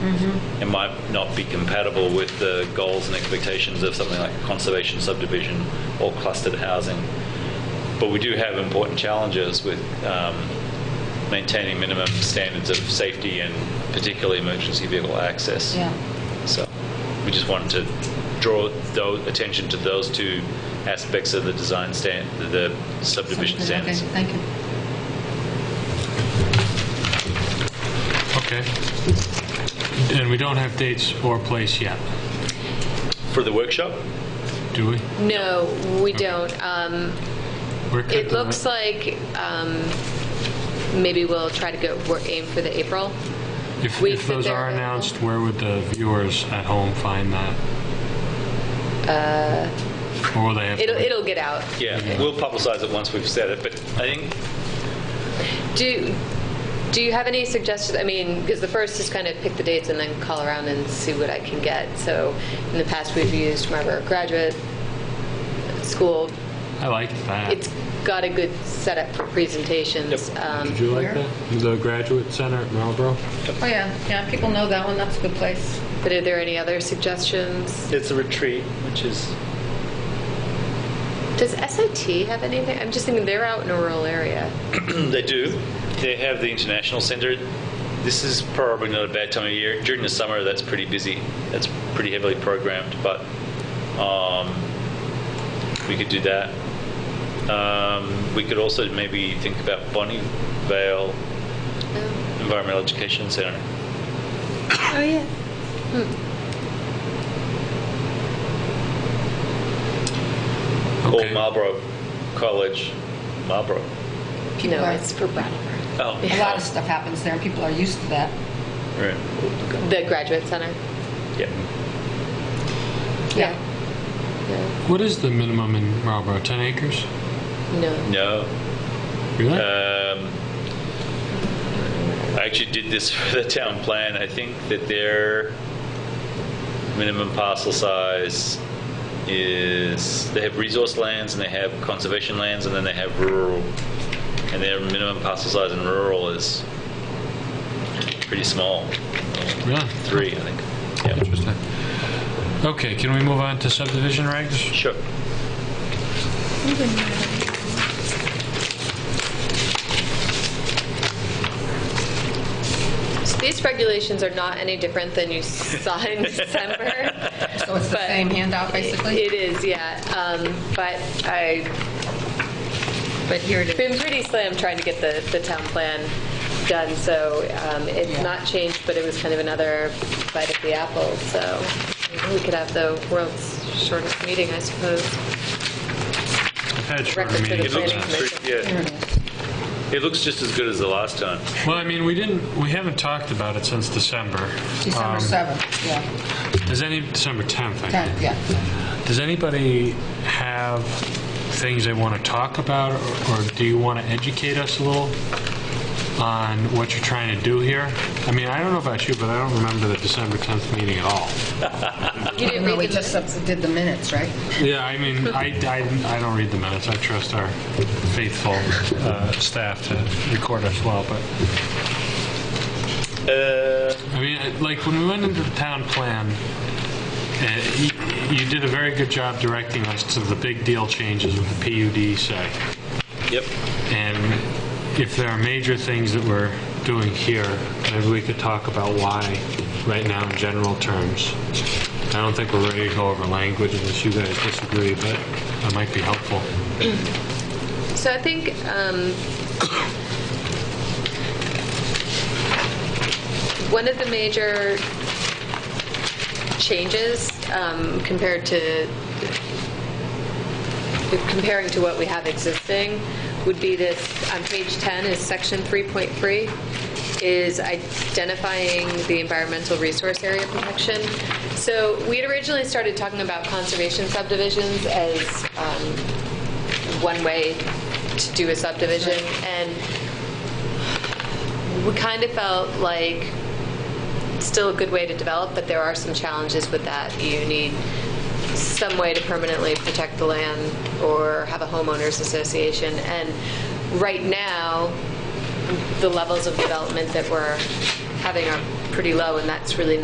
It might not be compatible with the goals and expectations of something like conservation subdivision or clustered housing. But we do have important challenges with um, maintaining minimum standards of safety and particularly emergency vehicle access. Yeah. So we just wanted to draw tho- attention to those two aspects of the design stand, the subdivision Okay, standards. thank you. Okay. And we don't have dates or place yet, For the workshop, do we? No, we don't. Um, We're good It to looks like um, maybe we'll try to go, we're aim for the April. If, weeks if that those they're are available. announced, where would the viewers at home find that? Or will they have? to Uh, It'll, wait? it'll get out. yeah, we'll publicize it once we've said it, but I think Do, do you have any suggestions? I mean, because the first is kind of pick the dates and then call around and see what I can get. So in the past, we've used Marlborough Graduate School. I like that. It's got a good setup for presentations. Um, Did you like that? The Graduate Center at Marlboro? Oh, yeah, yeah, people know that one, that's a good place. But are there any other suggestions? It's a retreat, which is, Does SIT have anything? I'm just thinking they're out in a rural area. Mm, They do. They have the international center. This is probably not a bad time of year. During the summer, that's pretty busy. That's pretty heavily programmed, but um, we could do that. Um, we could also maybe think about Bonnie Vale Environmental Education Center. Oh, yeah. Or Okay. Marlborough College, Marlborough. People No, are- it's for Brattleboro. Oh, A lot of stuff happens there, and people are used to that. right. The Graduate Center? Yeah. Yeah. What is the minimum in Marlboro? 10 acres? No. No. Really? Um, I actually did this for the town plan. I think that their minimum parcel size is, they have resource lands and they have conservation lands and then they have rural. And their minimum parcel size in rural is pretty small, Really? three, I think. Yeah, Interesting. Okay, can we move on to subdivision regs? sure. So these regulations are not any different than you saw in December. So it's the But- same handout, basically? It is, yeah. Um, But I, But here it is. been pretty slim trying to get the, the town plan done, so um, it's Yeah. not changed, but it was kind of another bite at the apple, so we could have the world's shortest meeting, I suppose. I've had shorter Record for the meetings. It looks, Planning pretty- yeah, Here it is. it looks just as good as the last time. Well, I mean, we didn't, we haven't talked about it since December. December Um, 7th, yeah, Does any, December 10th, I think. 10th, yeah. Does anybody have things they want to talk about, or or do you want to educate us a little on what you're trying to do here? I mean, I don't know about you, but I don't remember the December 10th meeting at all. You didn't No, we read the just did the minutes, right? Yeah, I mean, I, I, I don't read the minutes. I trust our faithful uh, staff to record us well, but, Uh, I mean, I- like, when we went into the town plan, uh, you- you did a very good job directing us to the big deal changes with the PUD side. Yep, And if there are major things that we're doing here, maybe we could talk about why right now in general terms. I don't think we're ready to go over language unless you guys disagree, but that might be helpful. So I think um, one of the major changes um, compared to comparing to what we have existing would be this on page 10 is section 3.3 is identifying the environmental resource area protection. So we had originally started talking about conservation subdivisions as um, one way to do a subdivision, and we kind of felt like still a good way to develop, but there are some challenges with that. You need some way to permanently protect the land or have a homeowners association. And right now, the levels of development that we're having are pretty low, and that's really